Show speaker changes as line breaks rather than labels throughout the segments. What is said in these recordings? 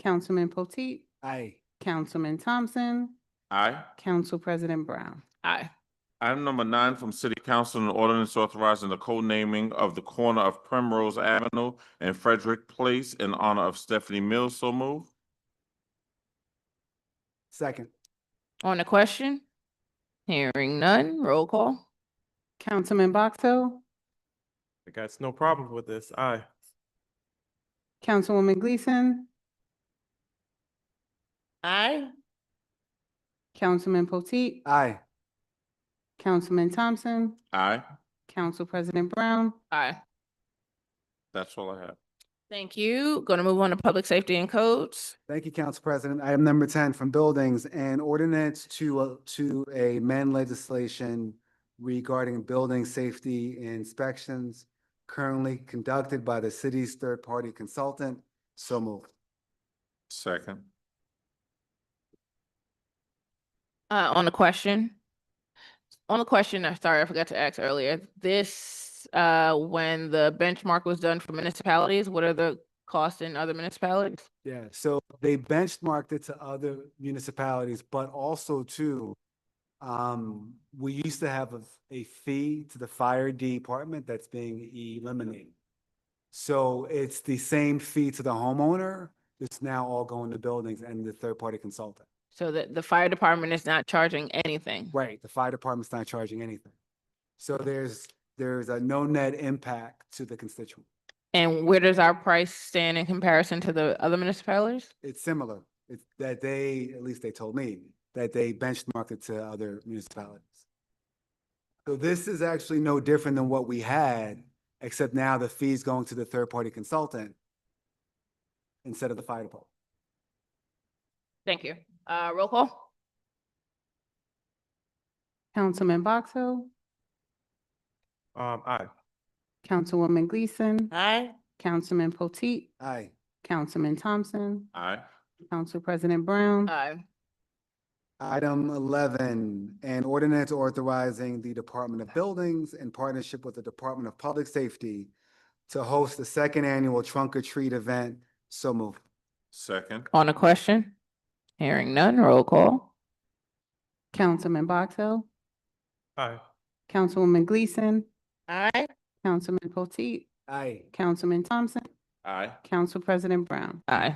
Councilman Potteet,
Aye.
Councilman Thompson,
Aye.
Council President Brown.
Aye.
Item number nine from City Council, an ordinance authorizing the co-naming of the corner of Primrose Avenue and Frederick Place in honor of Stephanie Mills. So move.
Second.
On the question? Hearing none, roll call.
Councilman Box Hill,
I got no problem with this. Aye.
Councilwoman Gleason,
Aye.
Councilman Potteet,
Aye.
Councilman Thompson,
Aye.
Council President Brown.
Aye.
That's all I have.
Thank you. Gonna move on to public safety and codes.
Thank you, Council President. Item number ten from Buildings and Ordinance to, uh, to amend legislation regarding building safety inspections currently conducted by the city's third-party consultant. So moved.
Second.
Uh, on the question? On the question, I'm sorry, I forgot to ask earlier. This, uh, when the benchmark was done for municipalities, what are the costs in other municipalities?
Yeah, so they benchmarked it to other municipalities, but also too, um, we used to have a, a fee to the fire department that's being eliminated. So it's the same fee to the homeowner, it's now all going to buildings and the third-party consultant.
So that the fire department is not charging anything.
Right, the fire department's not charging anything. So there's, there's a no net impact to the constituent.
And where does our price stand in comparison to the other municipalities?
It's similar, it's that they, at least they told me, that they benchmarked it to other municipalities. So this is actually no different than what we had, except now the fee's going to the third-party consultant instead of the fire department.
Thank you. Uh, roll call?
Councilman Box Hill,
Um, aye.
Councilwoman Gleason,
Aye.
Councilman Potteet,
Aye.
Councilman Thompson,
Aye.
Council President Brown.
Aye.
Item eleven, an ordinance authorizing the Department of Buildings in partnership with the Department of Public Safety to host the second annual trunk or treat event. So moved.
Second.
On a question? Hearing none, roll call.
Councilman Box Hill,
Aye.
Councilwoman Gleason,
Aye.
Councilman Potteet,
Aye.
Councilman Thompson,
Aye.
Council President Brown.
Aye.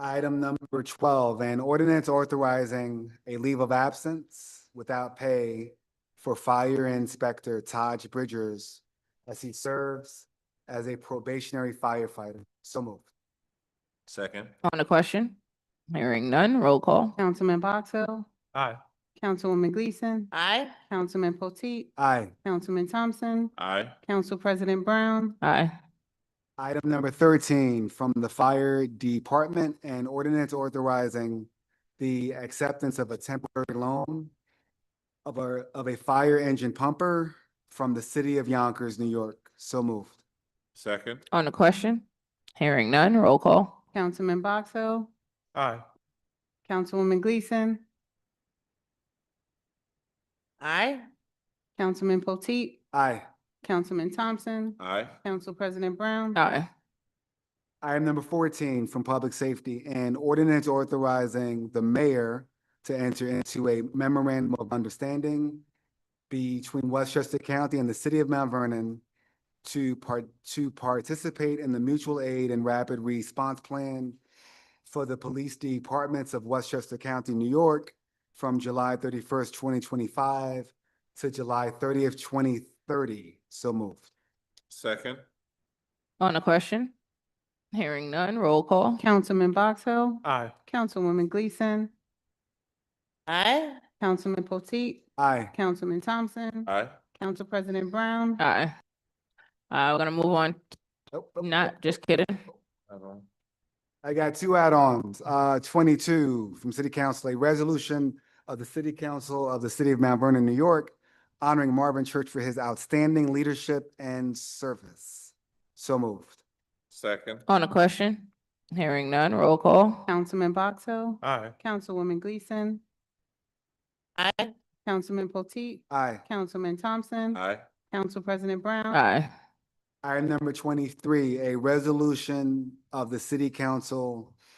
Item number twelve, an ordinance authorizing a leave of absence without pay for fire inspector Taj Bridgers as he serves as a probationary firefighter. So moved.
Second.
On a question? Hearing none, roll call.
Councilman Box Hill,
Aye.
Councilwoman Gleason,
Aye.
Councilman Potteet,
Aye.
Councilman Thompson,
Aye.
Council President Brown.
Aye.
Item number thirteen, from the fire department, an ordinance authorizing the acceptance of a temporary loan of a, of a fire engine pumper from the city of Yonkers, New York. So moved.
Second.
On a question? Hearing none, roll call.
Councilman Box Hill,
Aye.
Councilwoman Gleason,
Aye.
Councilman Potteet,
Aye.
Councilman Thompson,
Aye.
Council President Brown.
Aye.
Item number fourteen from Public Safety, an ordinance authorizing the mayor to enter into a memorandum of understanding between Westchester County and the city of Mount Vernon to part, to participate in the mutual aid and rapid response plan for the police departments of Westchester County, New York, from July thirty-first, twenty twenty-five to July thirtieth, twenty thirty. So moved.
Second.
On a question? Hearing none, roll call.
Councilman Box Hill,
Aye.
Councilwoman Gleason,
Aye.
Councilman Potteet,
Aye.
Councilman Thompson,
Aye.
Council President Brown.
Aye. Uh, we're gonna move on.
Nope, nope, nope.
Not, just kidding.
I got two add-ons, uh, twenty-two from City Council, a resolution of the City Council of the City of Mount Vernon, New York, honoring Marvin Church for his outstanding leadership and service. So moved.
Second.
On a question? Hearing none, roll call.
Councilman Box Hill,
Aye.
Councilwoman Gleason,
Aye.
Councilman Potteet,
Aye.
Councilman Thompson,
Aye.
Council President Brown.
Aye.
Item number twenty-three, a resolution of the City Council